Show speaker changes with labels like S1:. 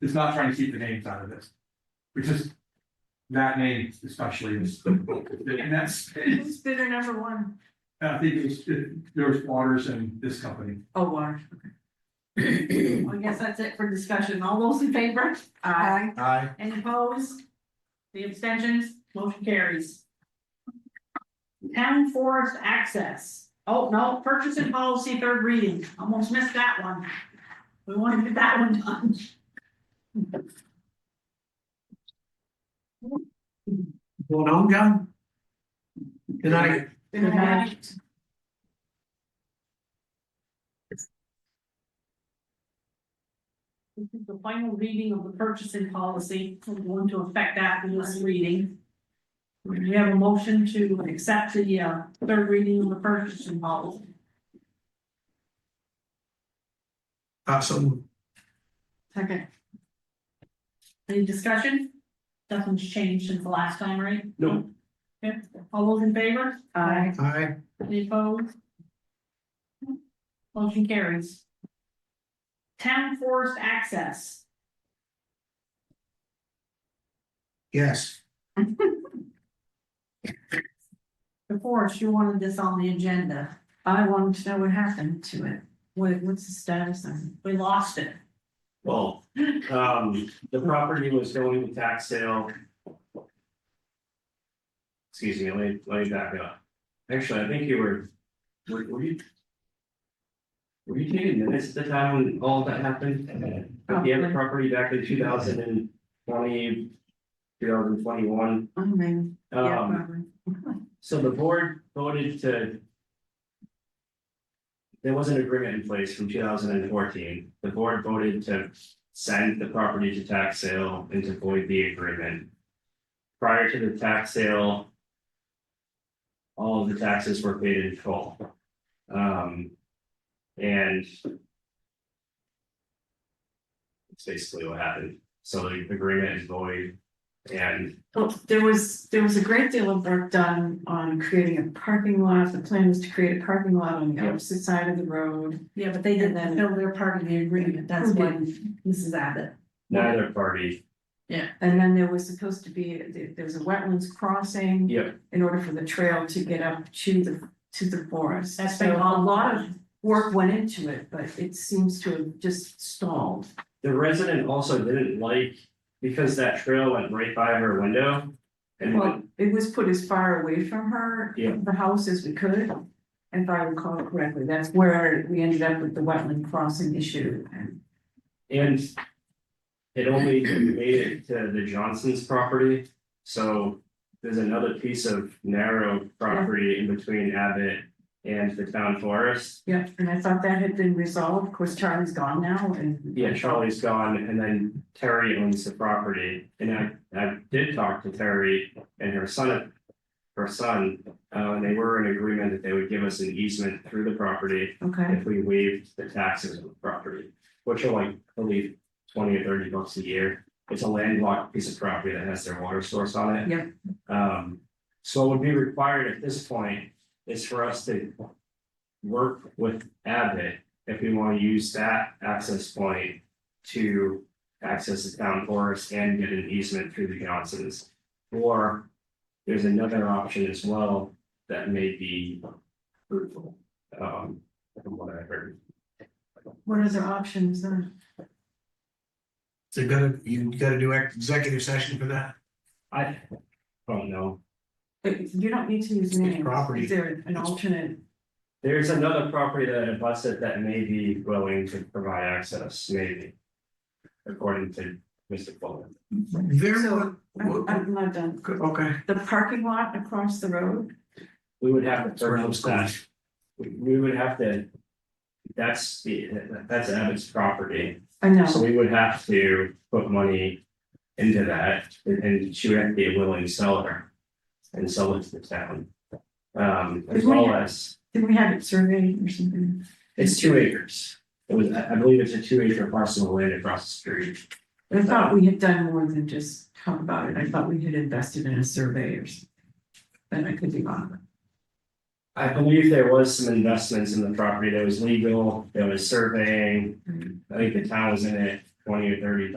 S1: it's not trying to keep the names out of this. Because. That name especially is, and that's,
S2: Who's bidder number one?
S1: I think it's, there's Waters and this company.
S2: Oh, water.
S3: Aye.
S2: I guess that's it for discussion. All those in favor? Any opposed? The abstentions, motion carries. Town forest access. Oh, no, purchasing policy, third reading. Almost missed that one. We want to get that one done.
S4: Going on, John? Good night.
S2: Good night. This is the final reading of the purchasing policy, we're going to affect that in this reading. We have a motion to accept the uh third reading of the purchasing policy.
S4: Absolutely.
S2: Second. Any discussion? Nothing's changed since the last time, right?
S1: No.
S2: Okay, all those in favor? Aye.
S4: Aye.
S2: Any opposed? Motion carries. Town forest access.
S4: Yes.
S2: Before, she wanted this on the agenda. I wanted to know what happened to it. What, what's the status on it? We lost it.
S5: Well, um, the property was going to tax sale. Excuse me, let me, let me back up. Actually, I think you were, were, were you? Were you taking minutes at the time when all that happened? But the other property back in two thousand and twenty, two thousand twenty-one,
S2: I mean, yeah,
S5: um.
S2: probably.
S5: So the board voted to. There was an agreement in place from two thousand and fourteen. The board voted to send the property to tax sale and to void the agreement. Prior to the tax sale. All of the taxes were paid in full. Um. And. It's basically what happened. So the agreement is void. And
S3: Well, there was, there was a great deal of work done on creating a parking lot, the plan was to create a parking lot on the
S5: Yeah.
S3: opposite side of the road.
S2: Yeah, but they didn't fulfill their part of the agreement, that's
S3: Who
S2: why Mrs. Abbott.
S5: neither party,
S3: And then there was supposed to be, there there was a wetlands crossing.
S5: Yeah.
S3: In order for the trail to get up to the, to the forest,
S2: That's
S3: so
S2: been
S3: a
S2: all-
S3: lot of work went into it, but it seems to have just stalled.
S5: The resident also didn't like, because that trail went right by her window. And
S3: Well, it was put as far away from her,
S5: Yeah.
S3: the house as we could. If I recall correctly, that's where we ended up with the wetland crossing issue and.
S5: And it only made it to the Johnson's property, so there's another piece of narrow property in between Abbott and the town forest.
S3: Yeah, and I thought that had been resolved, of course, Charlie's gone now and.
S5: Yeah, Charlie's gone and then Terry owns the property and I, I did talk to Terry and her son. Her son, uh, and they were in agreement that they would give us an easement through the property.
S3: Okay,
S5: if we waived the taxes on the property, which are like, I believe, twenty or thirty bucks a year. It's a landlocked piece of property that has their water source on it.
S3: Yep.
S5: Um, so what would be required at this point is for us to work with Abbott if we want to use that access point to access the town forest and get an easement through the Johnsons. Or there's another option as well that may be fruitful. Um, from what I heard.
S3: what other options then?
S4: So you gotta, you gotta do ex- executive session for that.
S5: I don't know.
S3: But you don't need to use names,
S4: property.
S3: is there an alternate?
S5: There's another property that abuts it that may be willing to provide access, maybe. According to Mr. Fuller.
S4: There,
S3: So, uh,
S4: wa-
S3: I'm, I'm not done,
S4: okay.
S3: the parking lot across the road,
S5: We would have
S4: That's
S5: to
S4: where I
S5: purchase
S4: was going.
S5: that. We we would have to. That's the, that's Abbott's property,
S3: I know.
S5: so we would have to put money into that and- and she would have to be a willing seller. And sell it to the town. Um, as
S3: Is we-
S5: well as.
S3: Did we have it surveyed or something?
S5: It's two acres. It was, I I believe it's a two acre parcel of land across the street.
S3: I thought we had done more than just talk about it, I thought we had invested in a survey or something. But I could be wrong.
S5: I believe there was some investments in the property. There was legal, there was surveying. I think the town was in it twenty or thirty